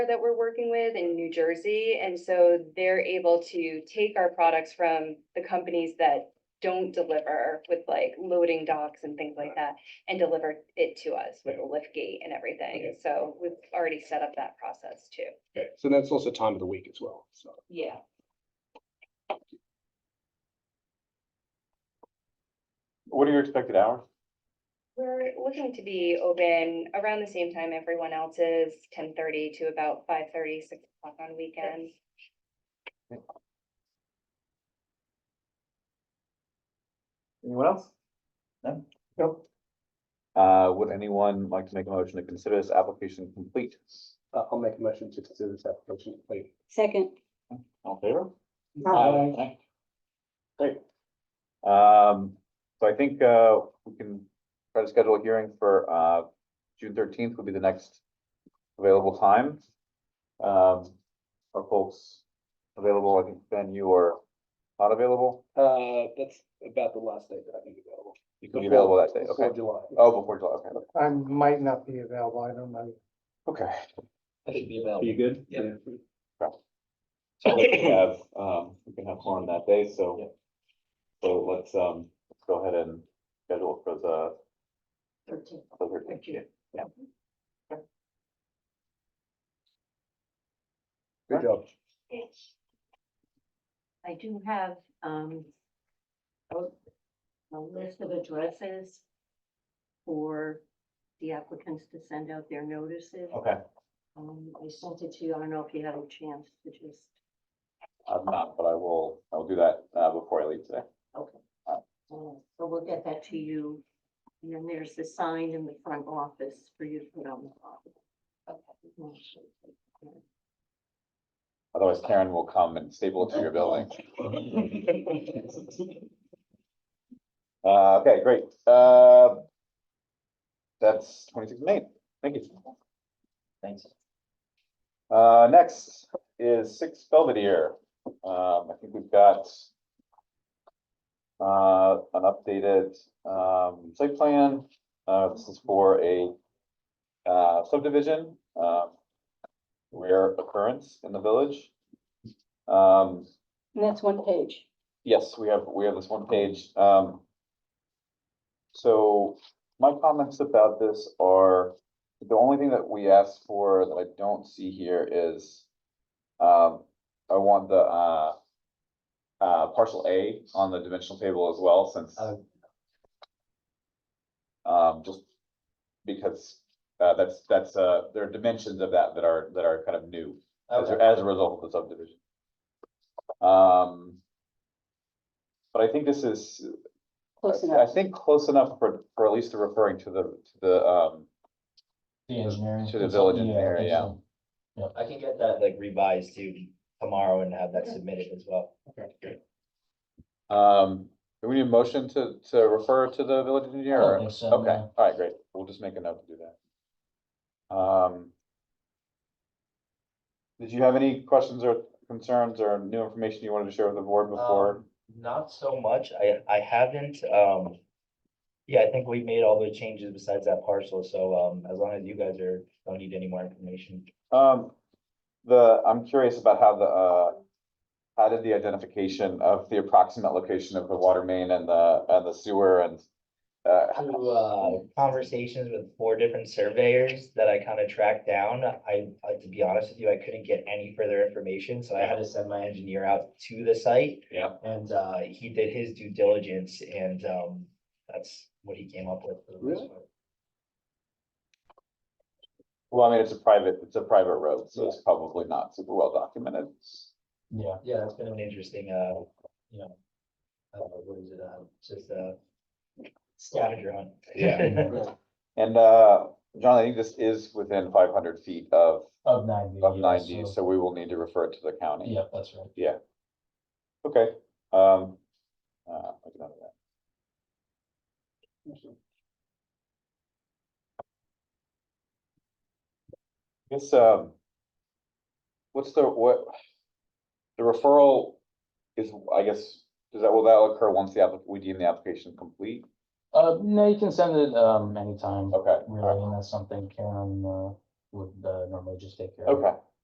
that we're working with in New Jersey. And so they're able to take our products from the companies that don't deliver with like loading docks and things like that and deliver it to us with a lift gate and everything. Okay. So we've already set up that process too. Okay, so that's also time of the week as well, so. Yeah. What are your expected hours? We're looking to be open around the same time everyone else is, ten thirty to about 5:30, 6 o'clock on weekends. Anyone else? No? Nope. Uh, would anyone like to make a motion to consider this application complete? Uh, I'll make a motion to consider this application complete. Uh, Second. All in favor? Aye. Great. Um, so I think, uh, we can try to schedule a hearing for, uh, June thirteenth would be the next available time. Um, are folks available? I think Ben, you are not available. Uh, that's about the last day that I can be available. You could be available that day, Before okay? July. Oh, before July, okay. I might not be available, I don't know. Okay. I should be Are available. you good? Yeah. So we can have, um, we can have Lauren that day, Yeah. so. So let's, um, let's go ahead and schedule it for the. Thirteen. the 13th, yeah. Good job. I do have, um, a, a list of addresses for the applicants to send out their notices. Okay, Um, I sent it to you, I don't know if you had a chance to just, I'm not, but I will, I'll do that, uh, before I leave today. okay. Uh, So we'll get that to you, and then there's the sign in the front office for you to put on the bottom. Okay. Otherwise Karen will come and staple it to your building. Uh, okay, great, uh. That's twenty-six May, thank you. Thanks. Uh, next is Six Belvedere. Um, I think we've got uh, an updated, um, site plan. Uh, this is for a uh, subdivision, um, rare occurrence in the village. Um, And that's one page. yes, we have, we have this one page, um. So my comments about this are, the only thing that we asked for that I don't see here is. Um, I want the, uh. Uh, partial A on the dimensional table as well, since. Oh. Um, just because, uh, that's, that's, uh, there are dimensions of that that are, that are kind of new as, a- as a result of the subdivision. Um. But I think this is, Close I enough. think close enough for, for at least referring to the, to the, um, The engineering. to the village engineer, yeah. I can get that like revised to tomorrow and have that Okay. submitted as well. Um, do we need a motion to, to refer to the village engineer? I don't or- think so, Okay, no. all right, great. We'll just make a note to do that. Um. Did you have any questions or concerns or new information you wanted to share with the board before? Um, Not so much. I, I haven't, um, yeah, I think we made all the changes besides that parcel. So, um, as long as you guys are, don't need any more information. Um, the, I'm curious about how the, uh, how did the identification of the approximate location of the water main and the, and the sewer and, uh, Through, uh, conversations with four different surveyors that I kind of tracked down, I, I- to be honest with you, I couldn't get any further information, so I had to send my engineer out to the site. Yeah. And, uh, he did his due diligence and, um, that's what he came up with. for the most Really? part. well, I mean, it's a private, it's a private road, so it's probably not super well documented. Yeah. Yeah, it's been an interesting, uh, you know, uh, what is it, uh, just a scavenger hunt. Yeah. And, uh, John, I think this is within five hundred feet of, Of ninety. of yeah, ninety, so- so we will need to refer it to the county. Yeah, that's right. Okay, um, uh, I'll get out of that. Guess, um, what's the, what, the referral is, I guess, does that, will that occur once the applic, we deem the application complete? Uh, no, you can send it, um, anytime, Okay, all really, and that's something Karen, uh, would, uh, normally just take care right. of. okay,